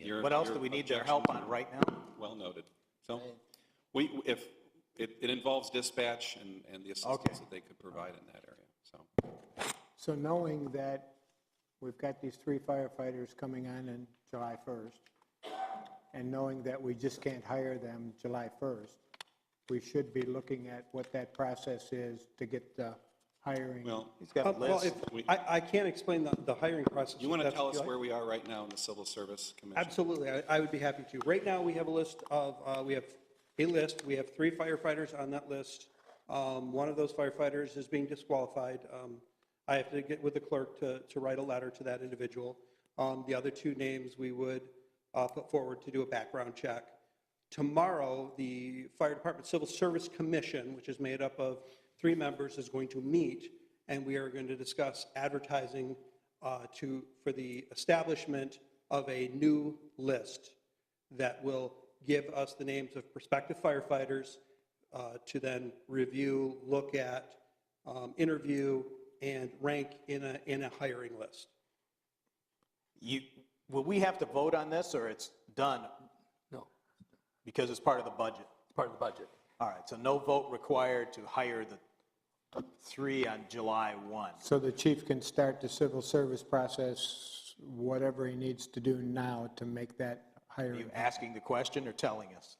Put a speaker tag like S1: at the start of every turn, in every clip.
S1: your.
S2: What else
S1: your
S2: do we need their
S1: objection.
S2: help on right now?
S1: Well noted. So we, if, it, it involves dispatch and, and the
S2: Okay.
S1: assistance that they could provide in that area, so.
S3: So knowing that we've got these three firefighters coming on in July 1st, and knowing that we just can't hire them July 1st, we should be looking at what that process is to get the hiring.
S1: Well,
S2: He's got a
S4: Uh, Well,
S2: list.
S4: if, I, I can't explain the, the hiring process.
S1: you want to
S4: if that's
S1: tell
S4: what
S1: us
S4: you like.
S1: where we are right now in the Civil Service Commission?
S4: Absolutely, I, I would be happy to. Right now, we have a list of, uh, we have a list, we have three firefighters on that list. Um, one of those firefighters is being disqualified. Um, I have to get with the clerk to, to write a letter to that individual. Um, the other two names we would, uh, put forward to do a background check. Tomorrow, the Fire Department Civil Service Commission, which is made up of three members, is going to meet, and we are going to discuss advertising uh, to, for the establishment of a new list that will give us the names of prospective firefighters uh, to then review, look at, um, interview, and rank in a, in a hiring list.
S2: You, will we have to vote on this or it's done
S5: No,
S2: because it's part of the budget?
S5: it's part of the budget.
S2: All right, so no vote required to hire the three on July 1.
S3: So the chief can start the civil service process, whatever he needs to do now to make that
S2: Are you
S3: hiring.
S2: asking the question or telling us?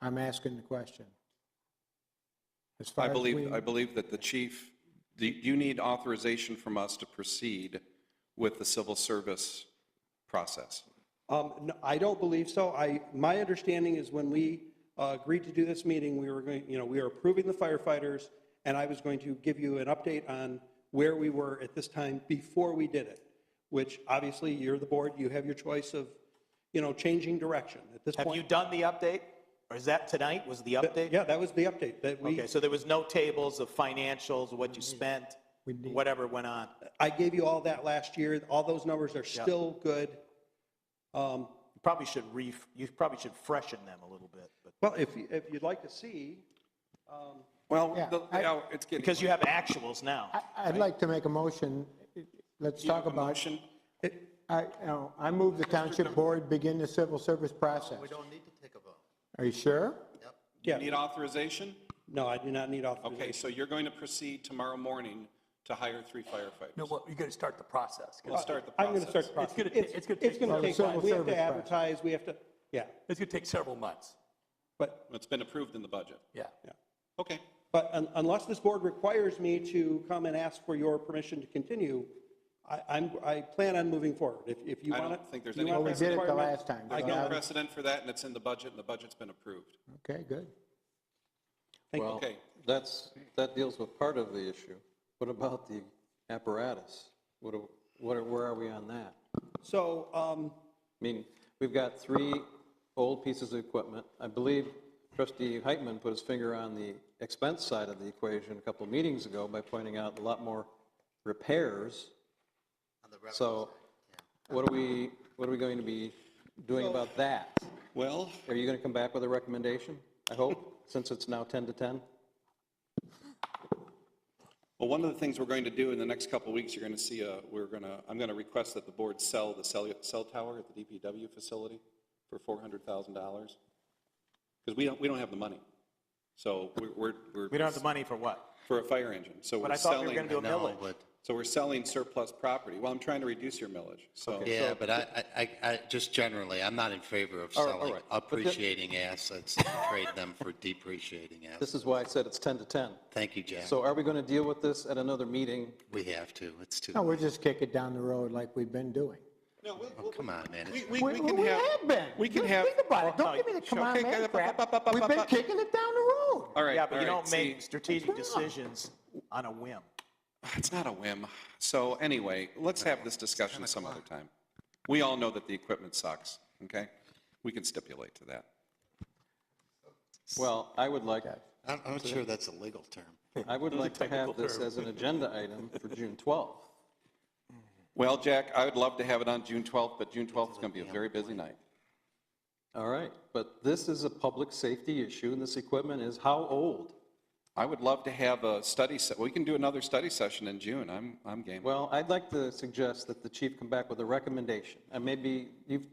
S3: I'm asking the question. As far
S1: I
S3: as
S1: believe,
S3: we-
S1: I believe that the chief, do do you need authorization from us to proceed with the civil service process?
S4: Um, no, I don't believe so. I, my understanding is when we uh, agreed to do this meeting, we were going, you know, we were approving the firefighters, and I was going to give you an update on where we were at this time before we did it, which obviously you're the board, you have your choice of, you know, changing direction at this
S2: Have you
S4: point.
S2: done the update? Or is that tonight was the update?
S4: Yeah, that was the update that we,
S2: Okay, so there was no tables of financials, what you spent, whatever went on?
S4: I gave you all that last year. All those numbers are still good. Um,
S2: You Probably should re, you probably should freshen them a little bit, but,
S4: Well, if, you- if you'd like to see, um,
S1: Well,
S3: Yeah,
S1: the-
S3: I-
S1: now, it's getting.
S2: because you have actuals now.
S3: I- I'd like to make a motion. Let's
S1: Do you
S3: talk
S1: have a
S3: about.
S1: motion?
S3: I, no, I move the township board begin the civil service process.
S6: We don't need to take a vote.
S3: Are you sure?
S1: You
S4: Yeah.
S1: need authorization?
S4: no, I do not need authorization.
S1: Okay, so you're going to proceed tomorrow morning to hire three firefighters?
S5: No, well, you got to start the process.
S1: We'll start the
S4: I'm going to start
S1: process.
S4: the process.
S5: gonna ta- it's gonna
S4: It's
S5: take
S4: going to
S5: time.
S4: take time. We have
S3: Civil
S4: to
S3: service process.
S4: advertise, we have to, yeah,
S5: It's going to take several months.
S4: but,
S1: It's been approved in the budget.
S5: Yeah.
S4: yeah.
S1: Okay,
S4: But un- unless this board requires me to come and ask for your permission to continue, I, I'm, I plan on moving forward. If, if you
S1: I
S4: want to.
S1: don't think there's any-
S3: Well, we did it the last time.
S4: I
S1: there's
S4: got
S1: no
S4: it.
S1: precedent for that, and it's in the budget, and the budget's been approved.
S3: Okay, good.
S7: Well,
S1: Okay.
S7: that's, that deals with part of the issue. What about the apparatus? What, do- what, are- where are we on that? I
S4: So, um,
S7: mean, we've got three old pieces of equipment. I believe trustee Heitman put his finger on the expense side of the equation a couple of meetings ago by pointing out a lot more repairs. So what are we, what are we going to be doing about that?
S1: Well,
S7: Are you going to come back with a recommendation, I hope, since it's now 10 to 10?
S1: well, one of the things we're going to do in the next couple of weeks, you're going to see a, we're going to, I'm going to request that the board sell the cell, cell tower at the DPW facility for $400,000. Because we don't, we don't have the money. So we're- we're, we're.
S2: We don't have the money for what?
S1: For a fire engine, so
S2: But
S1: we're
S2: I thought we were
S1: selling.
S2: going to do a
S6: No,
S2: millage.
S6: but,
S1: So we're selling surplus property. Well, I'm trying to reduce your millage, so.
S6: yeah, but I, I- I, I, just generally, I'm not in favor of
S7: All right, all
S6: selling
S7: right. But the-
S6: appreciating assets, and trade them for depreciating
S7: This
S6: assets.
S7: is why I said it's 10 to 10.
S6: Thank you, Jack.
S7: So are we going to deal with this at another meeting?
S6: We have to, it's too,
S3: No, we'll just kick it down the road like we've been doing.
S1: No, we'll-
S6: oh, come on, man.
S1: We,
S6: It's-
S1: we, we can have.
S3: been.
S1: We can
S3: Just
S1: have.
S3: Think about it. Don't
S2: no,
S3: give me the come
S2: sure.
S3: on
S1: Okay,
S3: man
S1: okay, ba- ba-
S3: crap.
S1: ba-
S3: We've been
S1: ba-
S3: kicking it down the road.
S1: All right.
S2: Yeah, but you
S1: all right,
S2: don't make
S1: see,
S2: strategic decisions on a whim.
S1: It's not a whim. So anyway, let's have this discussion some other time. We all know that the equipment sucks, okay? We can stipulate to that.
S7: Well, I would like,
S6: I'm, I'm not sure that's a legal term.
S7: I would like to have this as an agenda item for June 12th.
S1: Well, Jack, I would love to have it on June 12th, but June 12th is going to be a very busy night.
S7: All right, but this is a public safety issue, and this equipment is how old?
S1: I would love to have a study, se- we can do another study session in June. I'm, I'm game.
S7: Well, I'd like to suggest that the chief come back with a recommendation, and maybe you've